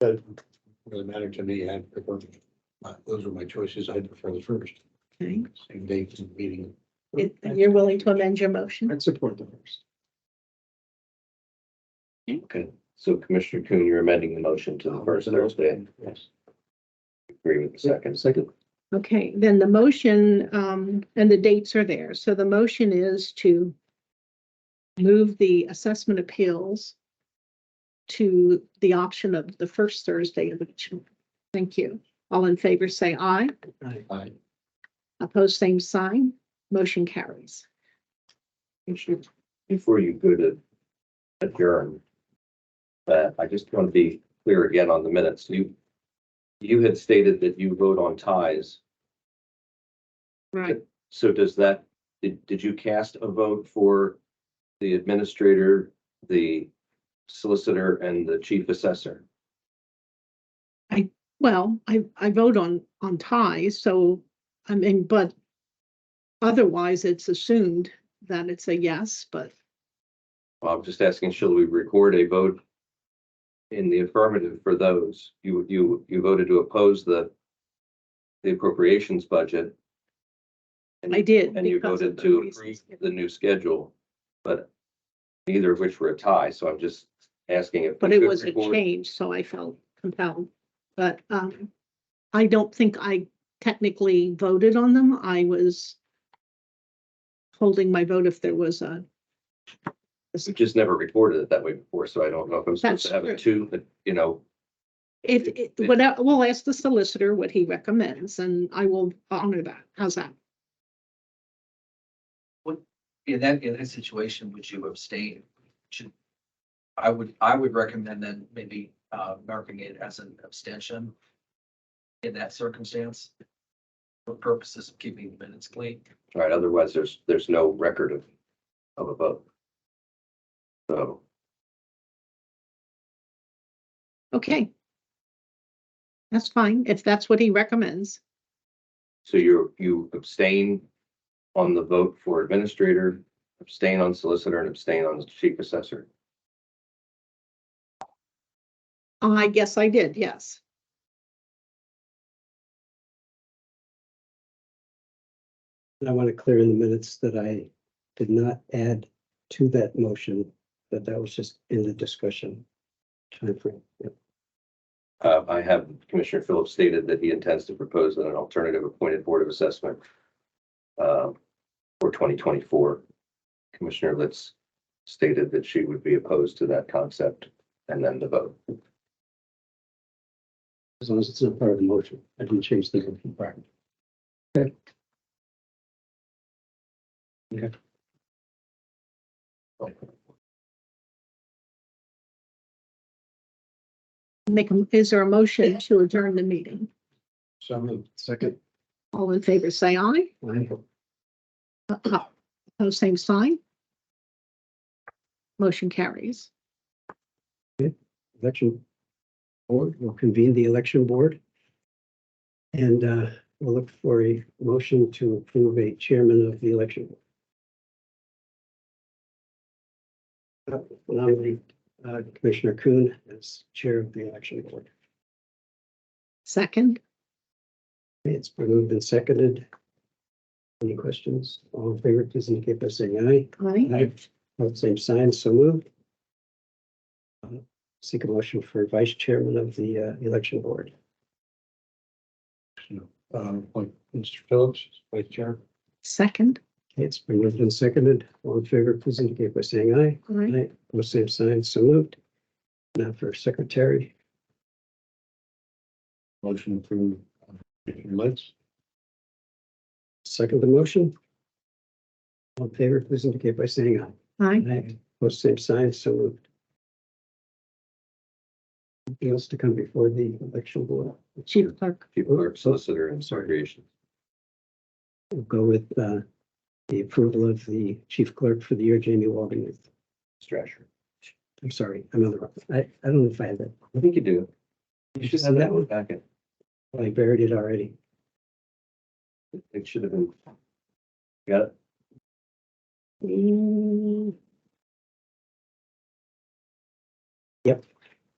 Doesn't really matter to me, I prefer, uh, those are my choices, I prefer the first, Okay, same date and meeting. It- you're willing to amend your motion? I'd support the first. Okay, so Commissioner Coon, you're amending the motion to the first Thursday. Yes. Agree with the second. Second. Okay, then the motion, um, and the dates are there. So the motion is to move the assessment appeals to the option of the first Thursday of each. month. Thank you. All in favor, say aye. Aye. Opposed, same sign. Motion carries. Before you go to adjourn, uh, I just want to be clear again on the minutes. You, you had stated that you vote on ties. Right. So does that, did, did you cast a vote for the administrator, the solicitor and the chief assessor? Well, I, I vote on, on ties, so, I mean, but otherwise it's assumed that it's a yes, but Well, I'm just asking, shall we record a vote in the affirmative for those? You, you, you voted to oppose the, the appropriations budget. and I did. And you because of voted the to approve reasons the given. new schedule, but neither of which were a tie, so I'm just asking if. But we it should was a record- change, so I felt compelled. But um, I don't think I technically voted on them. I was holding my vote if there was a, We just never recorded it that way before, so I don't know if I'm supposed to That's have a two, but, you know, if, It- it- it- what, I- we'll ask the solicitor what he recommends and I will honor that. How's that? In that, in that situation, would you abstain? Should, I would, I would recommend then maybe uh marking it as an abstention in that circumstance for purposes of keeping the minutes clean. right, otherwise there's, there's no record of, of a vote. So. Okay. That's fine, if that's what he recommends. So you're, you abstain on the vote for administrator, abstain on solicitor, and abstain on chief assessor. I guess I did, yes. And I want to clear in the minutes that I did not add to that motion, that that was just in the discussion timeframe. Yep. Uh, I have Commissioner Phillips stated that he intends to propose an alternative appointed board of assessment uh, for twenty twenty-four. Commissioner Litz stated that she would be opposed to that concept and then the vote. As long as it's not part of the motion, I didn't change the motion part. Make, a- is there a motion to adjourn the meeting? So moved. Second. All in favor, say aye. Aye. Uh, uh, Pose same sign. Motion carries. Election board, we'll convene the election board. And uh, we'll look for a motion to approve a chairman of the election. board. Uh, Nominate uh, Commissioner Kuhn as chair of the election board. Second, It's been moved and seconded. Any questions? All in favor, please indicate by saying aye. aye. All same sign, so moved. Uh, Seek a motion for vice chairman of the uh, election board. Um, appoint Mr. Phillips, as vice chair. Second, Okay, It's been moved and seconded. All in favor, please indicate by saying aye. aye. Aye. All same sign, so moved. Now for secretary, Motion approved. Commissioner Litz. second the motion. All in favor, please indicate by saying aye. aye. Aye. Post same sign, so moved. Anything else to come before the election board? Chief clerk, Chief clerk, solicitor, and Sorry. recreation. We'll go with uh, the approval of the chief clerk for the year, Jamie Walden. Strasher. I'm sorry, I'm on the wrong. I, I don't know if I had that. I think you do. You should have that one back. in. I buried it already. It should have been. Got it? mm, Yep,